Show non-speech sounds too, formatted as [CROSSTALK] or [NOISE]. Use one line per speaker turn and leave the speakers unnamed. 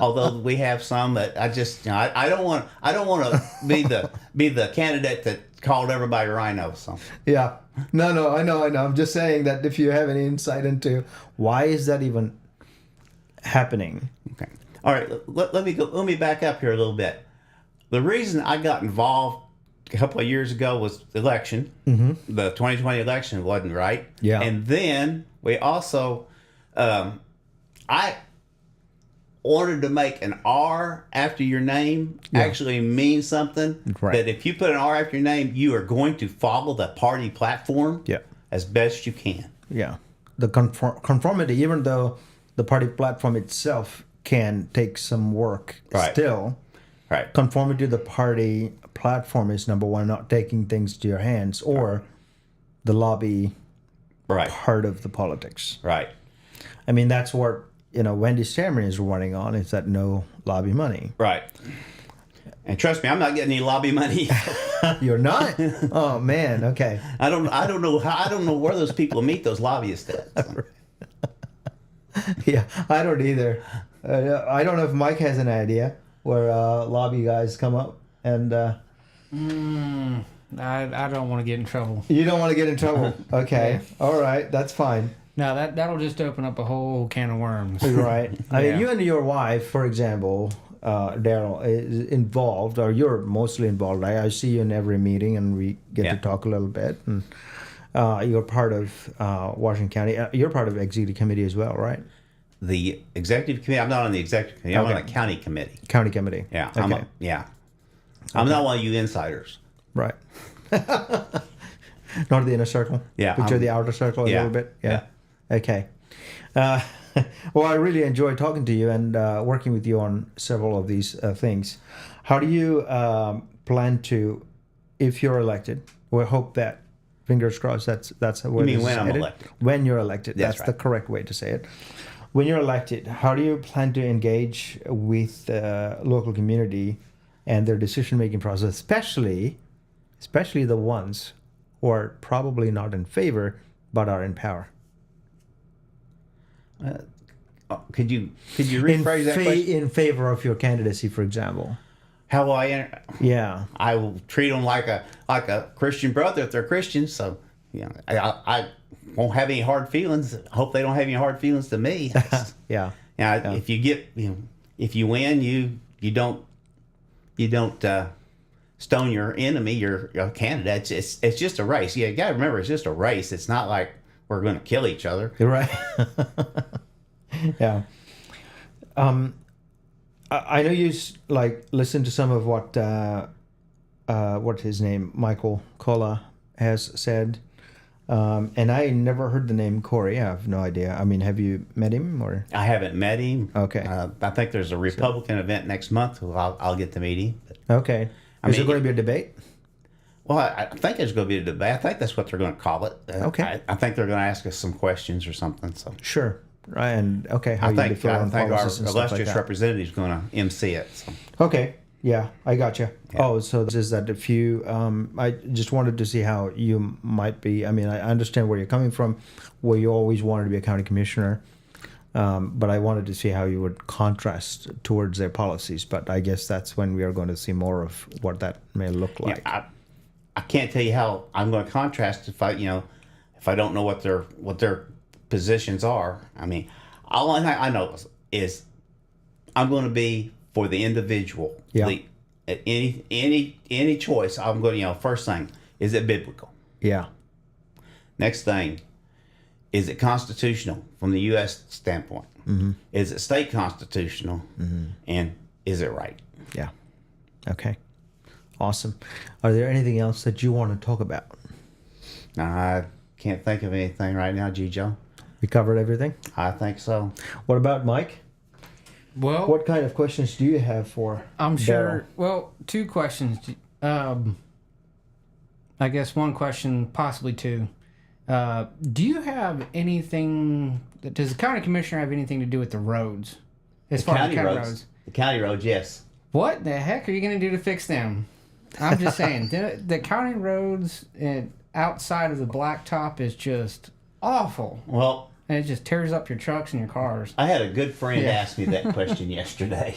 Although we have some that I just you know, I, I don't want I don't want to be the be the candidate that called everybody rhino. So
Yeah. No, no, I know, I know. I'm just saying that if you have any insight into why is that even happening?
okay, all right. Let, let me go. Let me back up here a little bit. The reason I got involved a couple of years ago was the election. Mm-hmm. The 2020 election wasn't right.
Yeah.
And then we also, um, I wanted to make an R after your name actually mean something.
Right.
That if you put an R after your name, you are going to follow the party platform
Yeah.
as best you can.
Yeah. The conform- conformity, even though the party platform itself can take some work
Right.
still,
Right.
conformity to the party platform is number one, not taking things to your hands or the lobby
Right.
part of the politics.
Right.
I mean, that's what, you know, Wendy Stammer is running on is that no lobby money.
Right. And trust me, I'm not getting any lobby money.
[LAUGHS] You're not? oh, man. Okay.
I don't. I don't know. How, I don't know where those people meet those lobbyists
[LAUGHS]
at.
Yeah, I don't either. Uh, I don't know if Mike has an idea where uh, lobby guys come up, and uh,
I, I don't want to get in trouble.
you don't want to get
[LAUGHS]
in trouble. Okay, all right, that's fine.
No, that that'll just open up a whole can of worms.
[LAUGHS]
Right. I mean,
Yeah.
you and your wife, for example, uh, Daryl, is involved, or you're mostly involved. I, I see you in every meeting, and we get
Yeah.
to talk a little bit. And uh, you're part of uh, Washington County. Uh, you're part of executive committee as well, right?
The executive committee. I'm not on the executive committee. I'm on
Okay.
the county committee.
County committee.
Yeah.
Okay.
I'm a, yeah. I'm not one of you insiders.
Right. [LAUGHS] Not the inner circle.
Yeah,
Picture
I'm-
the outer circle a
yeah,
little bit. Yeah. Okay. Uh, [LAUGHS] well, I really enjoy talking to you and uh, working with you on several of these uh, things. How do you um, plan to, if you're elected? We hope that, fingers crossed, that's that's where
mean
this
when
is
I'm
headed.
elected?
When you're elected,
That's
that's, the
right.
correct way to say it. When you're elected, how do you plan to engage with uh, local community and their decision making process, especially especially the ones who are probably not in favor but are in power.
Oh, could you could you
In,
rephrase that
fa-
question?
in favor of your candidacy, for example.
How will I enter?
Yeah.
I will treat them like a like a Christian brother if they're Christians. So you know, I, I I won't have any hard feelings. I hope they don't have any hard feelings to
[LAUGHS]
me.
Yeah.
Now, if you get, you know, if you win, you you don't you don't uh, stone your enemy, your, your candidate. It's, it's it's just a race. Yeah, you got to remember, it's just a race. It's not like we're going to kill each other.
You're right. [LAUGHS] yeah. Um, I, I know you s- like listen to some of what uh, uh, what his name Michael Kola has said, um, and I never heard the name Corey. I have no idea. I mean, have you met him or?
I haven't met him.
Okay.
Uh, I think there's a Republican event next month. Who I'll, I'll get to meet him. But,
Okay. Is
mean-
there going to be a debate?
well, I, I think there's going to be a debate. I think that's what they're going to call it. Uh,
Okay.
I, I think they're going to ask us some questions or something. So
Sure. Right. And okay, how
I
you
think
differ
I
on
think our
policies and stuff like
illustrious
that.
representative is going to MC it. So.
Okay. Yeah, I got you. Oh, so this is that if you, um, I just wanted to see how you might be. I mean, I understand where you're coming from, where you always wanted to be a county commissioner, um, but I wanted to see how you would contrast towards their policies. But I guess that's when we are going to see more of what that may look like.
I, I can't tell you how I'm going to contrast if I, you know, if I don't know what their what their positions are. I mean, all I, I know is, is I'm going to be for the individual.
Yeah.
The- at any any any choice, I'm going to you know first thing is it biblical.
Yeah.
Next thing, is it constitutional from the U.S. standpoint? Is it state constitutional? And is it right?
Yeah. Okay. Awesome. Are there anything else that you want to talk about?
I can't think of anything right now, G. Joe.
We covered everything.
I think so.
What about Mike?
Well,
What kind of questions do you have for?
I'm
Daryl?
sure. Well, two questions. Um, I guess one question, possibly two. Uh, do you have anything? Does the county commissioner have anything to do with the roads? As far as
county
county
roads. The county roads, yes.
what the heck are you going to do to fix them? I'm just saying, the, the county roads and outside of the blacktop is just awful.
Well,
and it just tears up your trucks and your cars.
I had a good friend
Yeah.
ask me that question [LAUGHS] yesterday.